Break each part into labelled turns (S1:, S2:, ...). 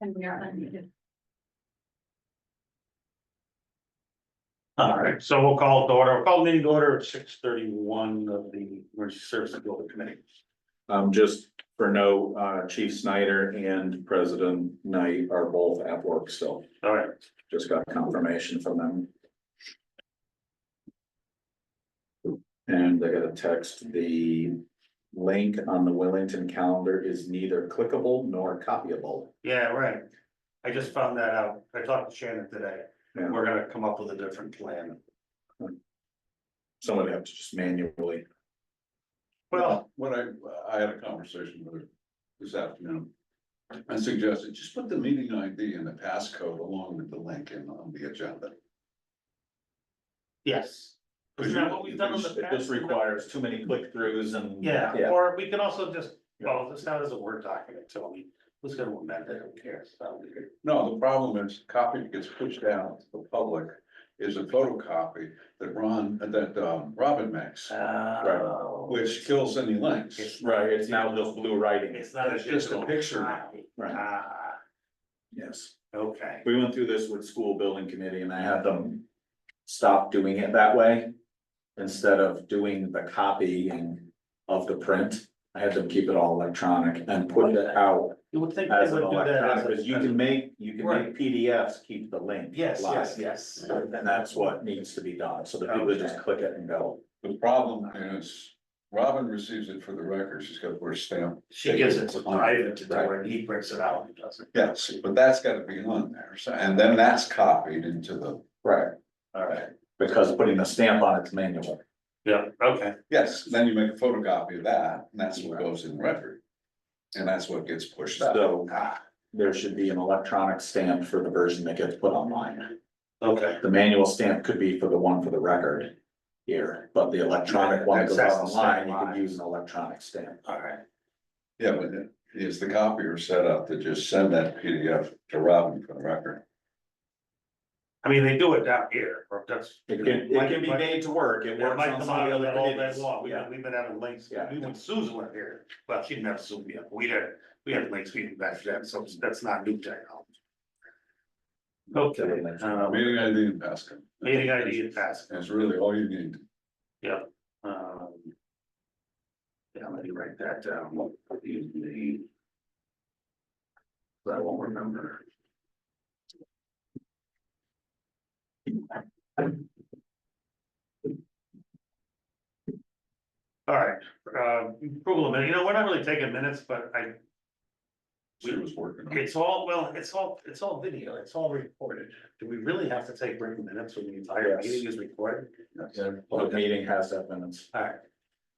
S1: And we are unmuted.
S2: All right, so we'll call it to order, we'll call the meeting to order at six thirty-one of the emergency services building committee.
S3: Um, just for note, uh, Chief Snyder and President Knight are both at work still.
S2: All right,
S3: Just got confirmation from them. And I got a text, the link on the Wellington calendar is neither clickable nor copyable.
S2: yeah, right. I just found that out. I talked to Shannon today.
S3: Yeah.
S2: We're gonna come up with a different plan.
S3: Someone have to just manually,
S2: Well,
S4: When I, I had a conversation with her this afternoon. I suggested just put the meeting ID and the passcode along with the link in on the agenda.
S2: yes. Isn't that what we've done in the
S3: it just
S2: past?
S3: requires too many click throughs and.
S2: Yeah,
S3: Yeah,
S2: or we can also just, well, this now is a Word document, so I mean, who's gonna amend it, who cares? That'll be good.
S4: No, the problem is copy gets pushed out to the public is a photocopy that Ron, that um, Robin makes,
S2: Uh,
S4: which kills any links.
S3: right, it's now just blue writing,
S2: It's not a
S4: It's just a
S2: digital
S4: picture.
S2: copy.
S3: right,
S2: Ah,
S3: yes.
S2: okay,
S3: We went through this with school building committee and I had them stop doing it that way. Instead of doing the copying of the print, I had them keep it all electronic and put it out
S2: you would think they
S3: as an
S2: would do that as
S3: electronic,
S2: a.
S3: because you can make, you can
S2: Right.
S3: make PDFs, keep the link.
S2: Yes,
S3: live.
S2: yes, yes.
S3: And that's what needs to be done, so that people just click it and go.
S4: The problem is Robin receives it for the record. She's got to put a stamp.
S2: She gives it to Ivan to do it, and he brings it out and does it.
S4: Yes, but that's got to be on there. So, and then that's copied into the,
S3: Right.
S2: Alright.
S3: Because putting the stamp on it's manual.
S2: Yeah, okay.
S4: yes, then you make a photocopy of that and that's what goes in the record. And that's what gets pushed out.
S3: So there should be an electronic stamp for the version that gets put online.
S2: Okay.
S3: The manual stamp could be for the one for the record here, but the electronic one that goes
S2: Access the stamp
S3: online, you
S2: line.
S3: could use an electronic stamp.
S2: Alright,
S4: Yeah, but is the copier set up to just send that PDF to Robin for the record?
S2: I mean, they do it down here, or that's.
S3: It can, it can be made to work, it
S2: That
S3: works
S2: might
S3: on
S2: come
S3: some of
S2: out
S3: the
S2: of
S3: other
S2: that all day
S3: committees.
S2: long, we,
S3: Yeah.
S2: we've been having links,
S3: Yeah.
S2: we when Susan went here, well, she didn't have Zoom yet, we did, we had links, we did back then, so that's not new technology. Okay,
S3: um,
S2: uh,
S4: Meeting ID and passcode.
S2: meeting ID and pass,
S4: That's really all you need.
S2: um. Yeah, let me write that down, Use the- I won't remember. All right, uh, approval of minutes, you know, we're not really taking minutes, but I,
S4: She was working on it.
S2: it's all, well, it's all, it's all video, it's all recorded. Do we really have to take written minutes when the entire
S3: Yes.
S2: meeting is recorded?
S3: Yeah, Public meeting has that minutes.
S2: All right.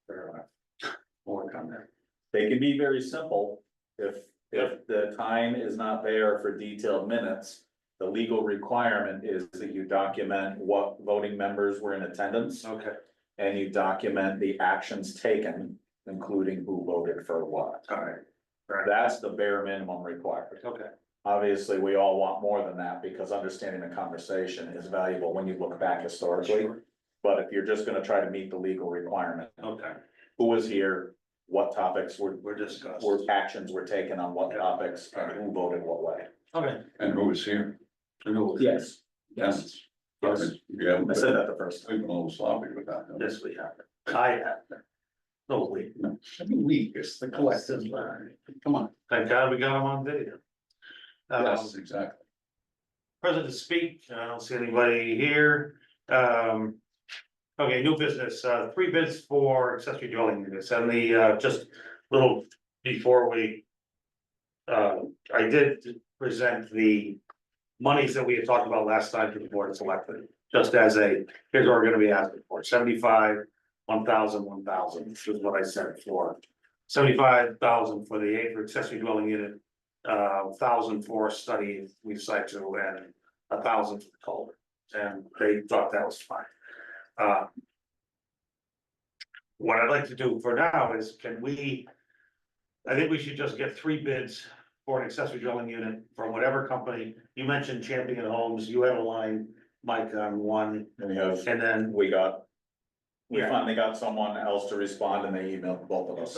S2: Fair enough. We'll Work on that.
S3: They can be very simple. If, if the time is not there for detailed minutes, the legal requirement is that you document what voting members were in attendance
S2: Okay.
S3: and you document the actions taken, including who voted for what.
S2: All right,
S3: That's the bare minimum required.
S2: okay.
S3: Obviously, we all want more than that because understanding the conversation is valuable when you look back historically.
S2: Sure.
S3: But if you're just gonna try to meet the legal requirement,
S2: Okay,
S3: who was here, what topics were,
S2: we're discussed.
S3: were actions were taken on what topics, and who voted what way?
S2: Okay.
S4: And who was here?
S3: Yes. Yes,
S4: Yes.
S3: yes.
S4: You haven't
S3: I
S4: been,
S3: said that the first time.
S4: we've been a little sloppy with that. haven't we?
S2: This we have. I have. Oh, No, we.
S4: I mean, We, it's the collective. Come on.
S2: Thank God we got them on video. Um,
S3: Uh,
S4: Yes, exactly.
S2: present to speak, I don't see anybody here, um. Okay, new business, uh, three bids for accessory dwelling units, and the, uh, just little before we. Uh, I did present the monies that we had talked about last time to the board of selectmen, just as a, here's what we're gonna be asking for, seventy-five. One thousand, one thousand, which is what I said for, seventy-five thousand for the acre accessory dwelling unit uh, thousand for study we decided to and a thousand for the culvert. And they thought that was fine. Uh. What I'd like to do for now is can we? I think we should just get three bids for an accessory drilling unit from whatever company. You mentioned Champion Homes, you had a line, Mike on one,
S3: And we have,
S2: and then
S3: we got, we
S2: Yeah.
S3: finally got someone else to respond and they emailed both of us.